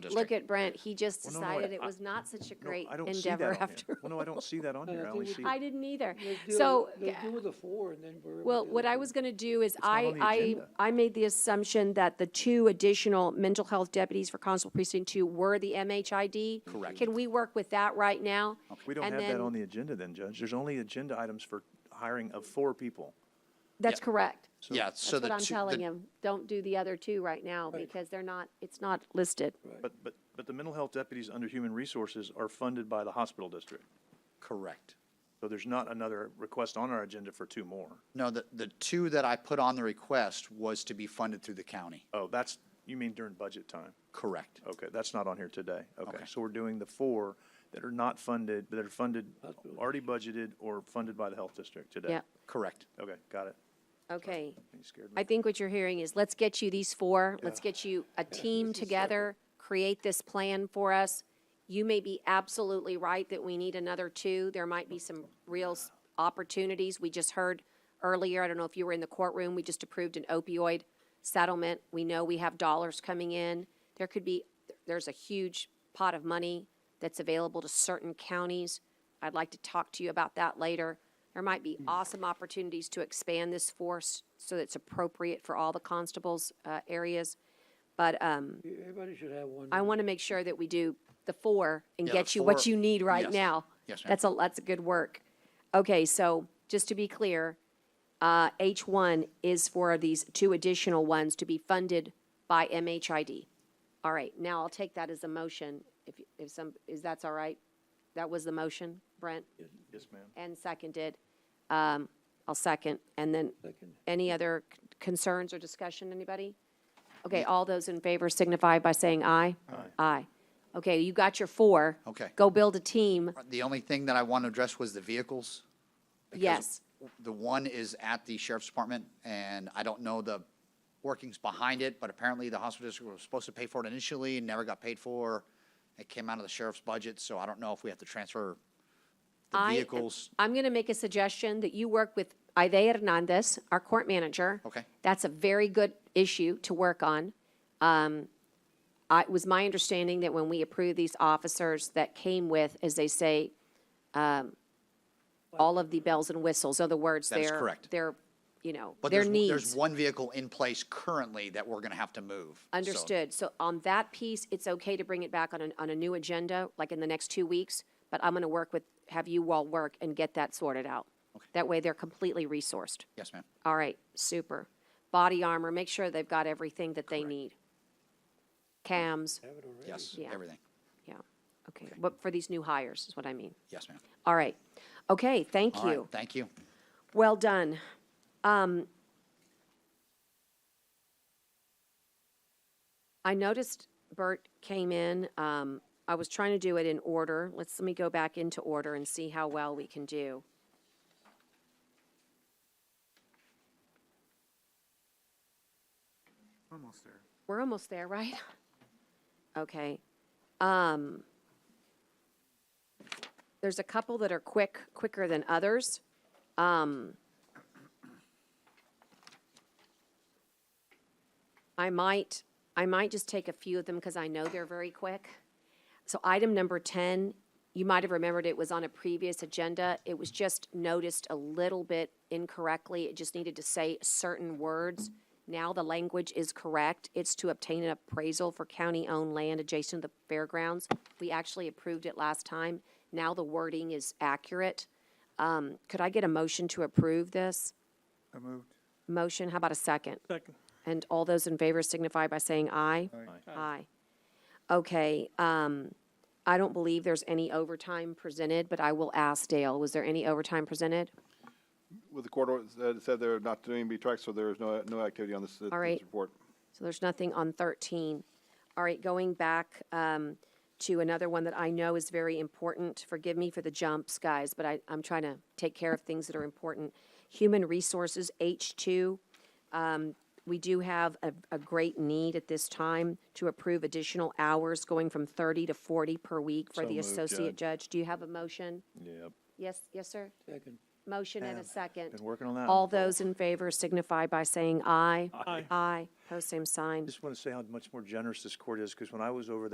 Look district. at Brent, he just Well, no, no, I- decided it I- was not such a No, great Oh, I don't see that endeavor on here. after. Well, no, I don't see that on No, here. I I think only we- see, I didn't either. They'll do- So, They'll yeah. do the four and then we're. Well, what I was going to do is I, on the I, agenda. I made the assumption that the two additional mental health deputies for Constable Precinct Two were the MHID. Correct. Can we work with that right now? we don't And have that then- on the agenda then, Judge. There's only agenda items for hiring of four people. That's Yeah. correct. Yeah, so That's the what I'm two- the- telling him. Don't do the other two right now because they're not, it's not listed. But, but, but the mental health deputies under human resources are funded by the hospital district. Correct. So there's not another request on our agenda for two more. No, the, the two that I put on the request was to be funded through the county. Oh, that's, you mean during budget time? Correct. Okay, that's not on here today. Okay, Okay. so we're doing the four that are not funded, that are funded, already budgeted or funded by the health district today. Yep. Correct. Okay, got it. Okay. You scared I me. think what you're hearing is, let's get you these four, let's get you a team together, create this plan for us. You may be absolutely right that we need another two. There might be some real s- opportunities. We just heard earlier, I don't know if you were in the courtroom, we just approved an opioid settlement. We know we have dollars coming in. There could be, there's a huge pot of money that's available to certain counties. I'd like to talk to you about that later. There might Hmm. be awesome opportunities to expand this force so that it's appropriate for all the constables' uh, areas. But um, Everybody should have one. I want to make sure that we do the four and Yeah, the get you what four- you need right yes. now. Yes, ma'am. That's a, that's a good work. Okay, so just to be clear, uh, H1 is for these two additional ones to be funded by MHID. All right, now I'll take that as a motion, if, if some, is that's all right? That was the motion, Brent? Yes, ma'am. And seconded. Um, I'll second. And then, Second. any other c- concerns or discussion, anybody? Okay, all those in favor signify by saying aye. Aye. Aye. Okay, you got your four. Okay. Go build a team. The only thing that I want to address was the vehicles. because Yes. The one is at the sheriff's department, and I don't know the workings behind it, but apparently the hospital district was supposed to pay for it initially, and never got paid for. It came out of the sheriff's budget, so I don't know if we have to transfer the I- vehicles. I'm going to make a suggestion that you work with Ida Hernandez, our court manager. Okay. That's a very good issue to work on. Um, I, it was my understanding that when we approved these officers that came with, as they say, um, all of the bells and whistles, other words, That their. is correct. Their, you know, But their there's, needs. there's one vehicle in place currently that we're going to have to move. so- Understood. So on that piece, it's okay to bring it back on, an- on a new agenda, like in the next two weeks, but I'm going to work with, have you all work and get that sorted out. That way they're completely resourced. Yes, ma'am. All right, super. Body armor, make sure they've got everything that they need. Cams, Have it already. Yes, Yeah. everything. yeah, okay. But for these new hires is what I mean. Yes, ma'am. All right, okay, thank All right, you. Thank you. Well done. Um, I noticed Bert came in. Um, I was trying to do it in order. Let's, let me go back into order and see how well we can do. Almost there. We're almost there, right? Okay. Um, there's a couple that are quick, quicker than others. Um, I might, I might just take a few of them because I know they're very quick. So item number 10, you might have remembered it was on a previous agenda. It was just noticed a little bit incorrectly. It just needed to say certain words. Now the language is correct. It's to obtain an appraisal for county-owned land adjacent to the fairgrounds. We actually approved it last time. Now the wording is accurate. Um, Could I get a motion to approve this? I moved. Motion, how about a second? Second. And all those in favor signify by saying aye. Aye. Okay, um, I don't believe there's any overtime presented, but I will ask Dale, was there any overtime presented? With the court order, said- said they're not doing any tracks, so there is no, no activity on this, uh, this All right. report. So there's nothing on 13. All right, going back um, to another one that I know is very important. Forgive me for the jumps, guys, but I, I'm trying to take care of things that are important. Human Resources, H2. Um, We do have a, a great need at this time to approve additional hours going from 30 to 40 per week for So the moved, associate judge. Do you have a motion? Yep, Yes, yes, sir? Second. Motion and a second. been working on that. All one for a while. those in favor signify by saying aye. Aye. Aye, pose same sign. Just want to say how much more generous this court is, because when I was over there.